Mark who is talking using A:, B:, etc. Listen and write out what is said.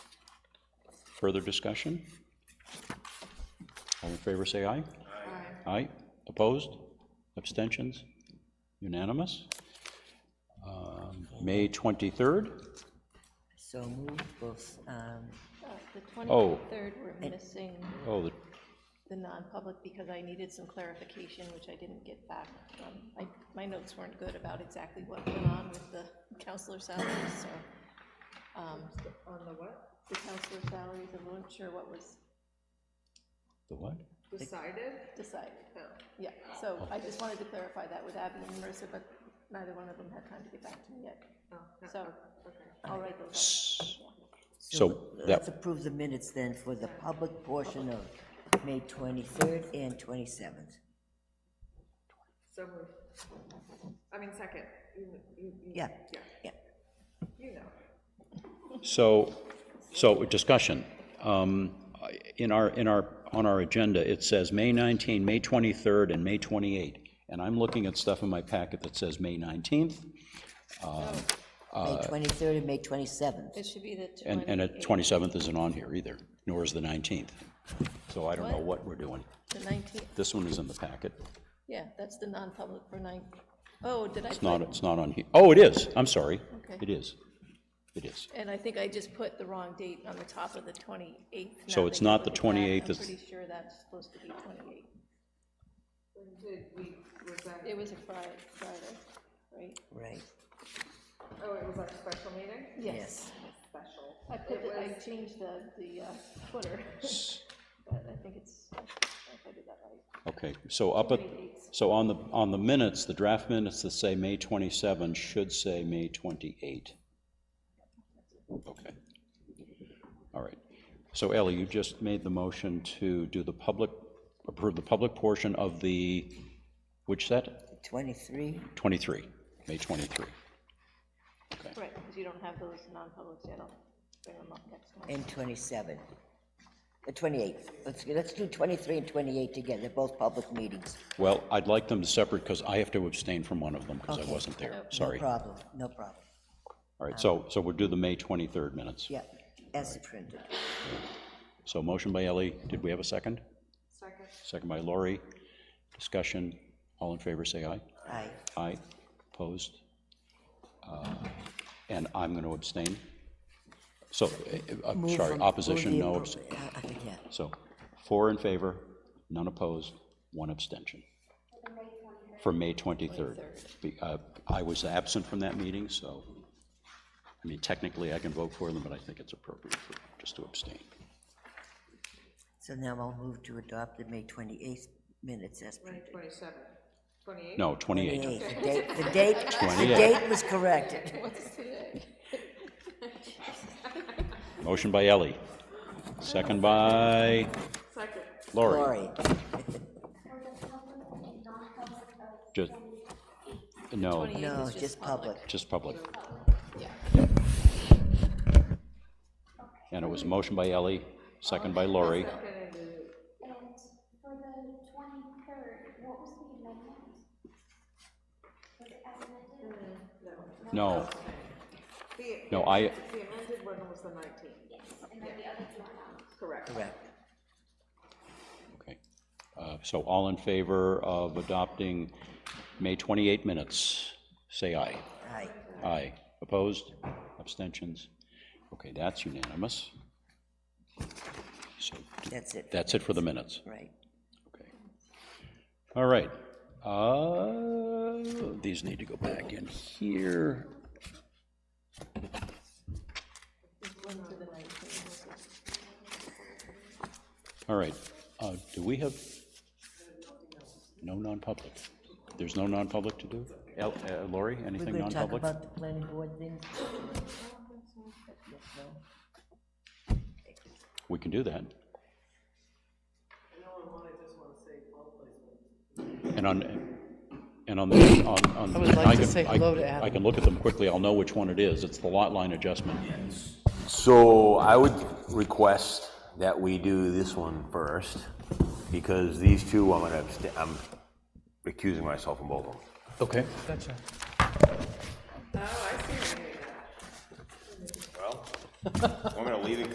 A: Further discussion? All in favor, say aye. Aye. Aye. Opposed? Abstentions? Unanimous? Um, May 23rd?
B: So move both, um,
C: The
A: Oh.
C: 23rd, we're missing
A: Oh, the-
C: the non-public because I needed some clarification, which I didn't get back. Um, I- My notes weren't good about exactly what went on with the counselor salaries, so. On the what? The counselor salaries, I wasn't sure what was
A: the what?
C: decided. Yeah, so I just wanted to clarify that with Abby and Marissa, but neither one of them had time to get back to me yet. So, I'll write those up.
A: So
B: let's
A: that,
B: approve the minutes then for the public portion of May 23rd and 27th.
D: So moved. I mean, second, you, you, you-
B: Yeah, yeah.
D: you know.
A: so, so discussion. Um, I- In our, in our, on our agenda, it says May 19, May 23rd, and May 28. And I'm looking at stuff in my packet that says May 19th
B: May
A: Uh,
B: 23rd and May 27th.
C: It should be the
A: And,
C: 20.
A: and the 27th isn't on here either, nor is the 19th. So I don't know what we're doing.
C: The 19th,
A: This one is in the packet.
C: yeah, that's the non-public for nine. Oh, did I?
A: It's not, it's not on here. Oh, it is, I'm sorry.
C: Okay.
A: It is. It is.
C: And I think I just put the wrong date on the top of the 28th.
A: So
C: now
A: it's
C: that you
A: not the
C: look at that,
A: 28th,
C: I'm
A: it's-
C: pretty sure that's supposed to be 28.
D: Did we, was that,
C: It was a Friday, Friday, right?
B: Right,
D: oh, it was our special meeting?
B: yes.
D: Special.
C: I put, the- I changed the, the uh, footer, but I think it's, I think I did that right.
A: Okay, so up at, so on the, on the minutes, the draft minutes that say May 27 should say May 28. Okay. All right. So Ellie, you just made the motion to do the public, approve the public portion of the, which set?
B: 23,
A: 23, May 23.
C: Right, because you don't have those non-publics yet, I'll bring them up next month.
B: and 27. The 28th. Let's, let's do 23 and 28 together, They're both public meetings.
A: Well, I'd like them separate because I have to abstain from one of them because I wasn't there.
B: No
A: Sorry. All
B: problem, no problem.
A: right, so, so we'll do the May 23rd minutes.
B: Yeah, as printed.
A: So motion by Ellie, did we have a second?
D: Second.
A: Second by Lori. Discussion, all in favor, say aye.
B: Aye.
A: Aye, opposed? Uh, And I'm going to abstain. So, uh, uh,
B: Move
A: sorry,
B: from-
A: opposition,
B: move the
A: no.
B: appro-
A: abst-
B: uh, uh, Yeah,
A: So four in favor, none opposed, one abstention. For May 23rd. Be- uh, I was absent from that meeting, so, I mean, technically I can vote for them, but I think it's appropriate for, just to abstain.
B: so now I'll move to adopt the May 28th minutes as printed.
D: Twenty-seven, twenty-eight?
A: No, 28.
B: 28th, the date, the date, the
A: 28th.
B: date was corrected.
A: Motion by Ellie, second by
D: Second.
A: Lori.
B: Lori,
A: Just, no,
C: 28th
B: no,
C: is
B: just public.
A: just public. And it was a motion by Ellie, second by Lori.
E: And for the twenty-third, what was the amendment? Was it as amended?
A: No,
D: The,
A: no, I,
D: the amended one was the nineteenth,
E: And then the other two are not.
D: correct.
B: Correct.
A: Okay. Uh, So all in favor of adopting May 28 minutes, say aye.
B: Aye.
A: Aye. Opposed? Abstentions? Okay, that's unanimous. So
B: That's it.
A: that's it for the minutes.
B: Right.
A: Okay. All right. Uh, These need to go back in here. All right. Uh, Do we have no non-public? There's no non-public to do? El- uh, Lori,
B: We're
A: anything
B: going to talk
A: non-public?
B: about the planning board things. Yes, no?
A: We can do that. And on, and on the, on, on.
F: I would like to
A: can-
F: say
A: I-
F: hello to Adam.
A: I can look at them quickly, I'll know which one it is, it's the lot line adjustment.
G: So I would request that we do this one first, because these two, I'm gonna, abst- I'm recusing myself from both of them.
A: Okay.
D: Oh, I see what you mean.
G: Well, I'm gonna leave it